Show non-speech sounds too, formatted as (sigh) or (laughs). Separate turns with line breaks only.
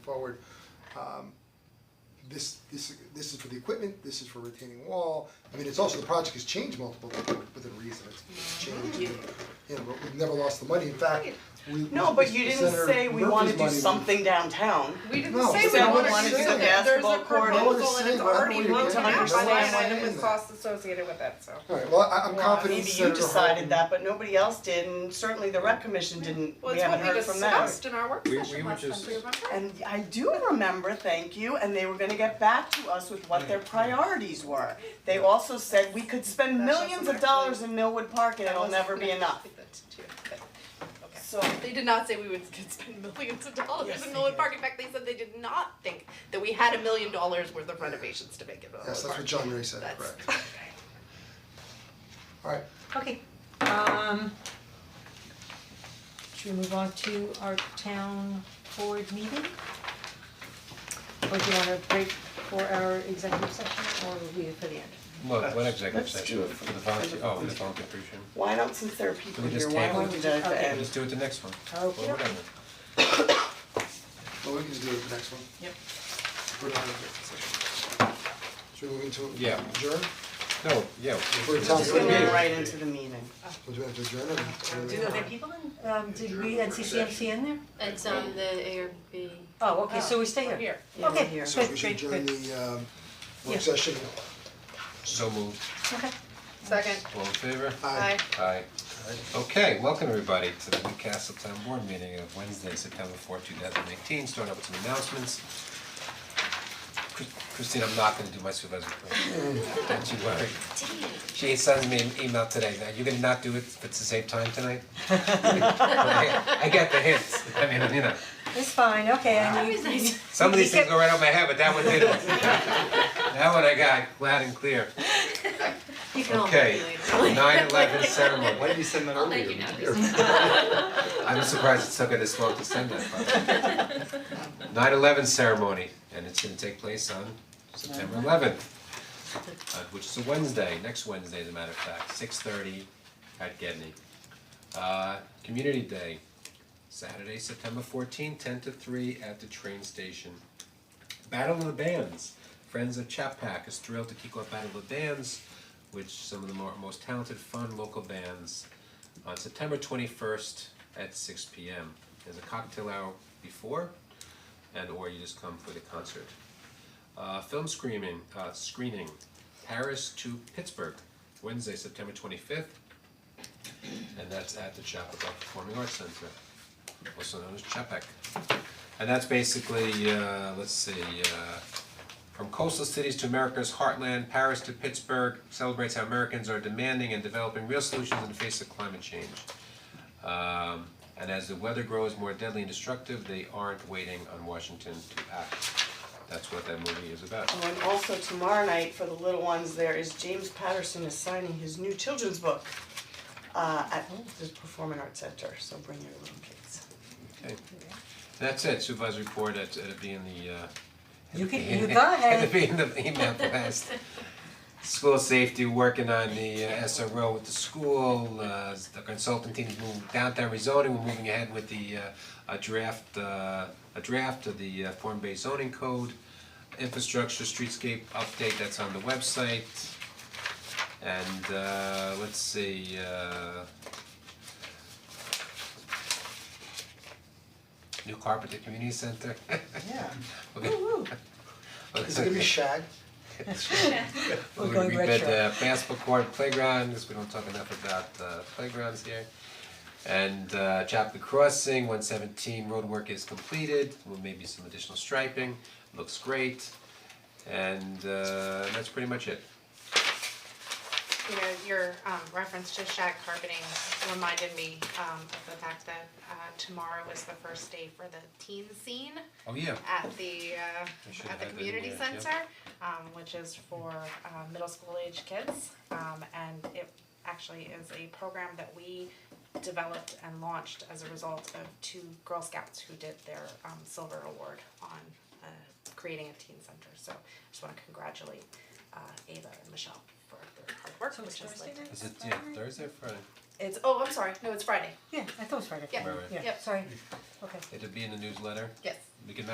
forward. Um, This, this, this is for the equipment, this is for retaining wall, I mean, it's also, the project has changed multiple, times within reason, it's it's changed, you know, but we've never lost the money, in fact, we.
No, but you didn't
Senator
say we
Murphy's
wanna do
money was-
something downtown.
We didn't
No,
say
it's
we
not
wanted
what
to
it's
do
saying.
that, there's
Basketball
a
court. No,
what it's
proposal and
saying,
it's
but I don't
already
really
looked
care.
at, by
Understand
the
why
way, and
it's
with
in
costs associated with it, so.
Alright, well, I I'm confident
Maybe you
Senator Harden-
decided that, but nobody else did, and certainly the rec commission didn't, we haven't heard from them.
Well, it's what we discussed in our work
We- we
session
were
last time,
just-
do you remember?
And I do remember, thank you, and they were gonna get back to us with what their priorities were. They also said we could spend millions of dollars in Millwood Park and it'll never be enough. So,
They did not say we would (laughs) could spend millions of
Yes,
dollars in
they
Millwood
did.
Park, in fact, they said they did not think that we had a million dollars worth of renovations to make in Millwood Park.
Yes, that's what John Ray said,
That's-
correct. Alright,
Okay, um. Should we move on to our town board meeting? Or do you wanna break for our executive session or leave it for the end?
What, what executive
Let's
session
do it
for the volunteer, oh, the volunteer appreciation.
why don't, since there are people
We
here,
just
why
table
don't we
it?
do that at the
Okay.
end?
Let's do it the next one.
Okay.
Well, whatever.
well, we can just do it the next one.
Yep.
We're not in a different session. Should we move into adjourn?
Yeah. No, yeah.
We're a town
Just
board
gonna
meeting.
go right into the meeting.
Would you have to adjourn or?
Are there people in, um, did we add CCMC in there?
It's on the ARB.
Oh, okay, so we stay here.
here.
Yeah, we're
Okay,
here.
So we
good,
should
great,
adjourn
good.
the um
Yeah.
work session,
So moved,
Okay.
(laughs) Second,
all in favor?
aye.
aye.
Aye. Okay, welcome everybody to the Newcastle Town Board meeting of Wednesday, September fourth, two thousand eighteen, starting out with some announcements. Chris- Christine, I'm not gonna do my supervisor report. don't you worry. She sends me an email today, now you're gonna not do it, if it's the same time tonight? (laughs) I get the hints, I mean, you know.
uh,
It's fine, okay, and (laughs) you,
Some of these things
Because-
go right over my head, but that one didn't.
(laughs)
That one I got loud and clear.
You can all
Okay.
leave later.
Nine eleven ceremony. Why did you send that
I'll let you know.
I'm surprised it took her this long to send that. (laughs) Nine eleven ceremony, and it's gonna take place on September eleventh. uh, which is a Wednesday, next Wednesday as a matter of fact, six thirty at Gedney. Uh, Community Day, Saturday, September fourteenth, ten to three at the train station. Battle of the Bands, Friends of Chapac is thrilled to kick off Battle of the Bands, which some of the more, most talented, fun local bands, on September twenty-first at six P M. There's a cocktail hour before, and or you just come for the concert. Uh, film screening, uh, screening, Paris to Pittsburgh, Wednesday, September twenty-fifth, and that's at the Chappaqua Performing Arts Center, also known as Chapac. And that's basically, uh, let's see, uh, from coastal cities to America's heartland, Paris to Pittsburgh celebrates how Americans are demanding and developing real solutions in the face of climate change. Um, and as the weather grows more deadly and destructive, they aren't waiting on Washington to act. That's what that movie is about.
Oh, and also tomorrow night for the little ones, there is James Patterson is signing his new children's book uh at the Performing Arts Center, so bring your little kids.
Okay. That's it, supervisor report, it it'll be in the uh.
You can- you
(laughs) it'll
got it.
be in the email blast. School safety, working on the uh, SRO with the school, uh the consultant team is moving downtown rezoning, we're moving ahead with the uh a draft uh a draft of the uh form-based zoning code. Infrastructure streetscape update, that's on the website. And uh let's see, uh new carpet at community center. (laughs)
Yeah.
Okay.
Is it gonna
(laughs)
be shag?
We're
We're going
We did
retro.
the basketball court playground, because we don't talk enough about uh playgrounds here. And uh Chapel Crossing, one seventeen roadwork is completed, with maybe some additional striping, looks great. And uh that's pretty much it.
you know, your um reference to shag carpeting reminded me um of the fact that uh tomorrow is the first day for the teen scene
Oh, yeah.
at the
I should
uh at the
have that in
community
there, yeah.
center, um which is for uh middle school age kids. Um and it actually is a program that we developed and launched as a result of two Girl Scouts who did their um silver award on uh creating a teen center. So I just wanna congratulate uh Ava and Michelle for their hard work,
So it's
which is
Thursday
like
night?
Is it yeah, Thursday or Friday?
it's, oh, I'm sorry, no, it's Friday,
Yeah, I thought it was Friday.
Yeah.
Right, right.
Yeah,
Yep.
sorry, okay.
It'll be in the newsletter,
yes.
we can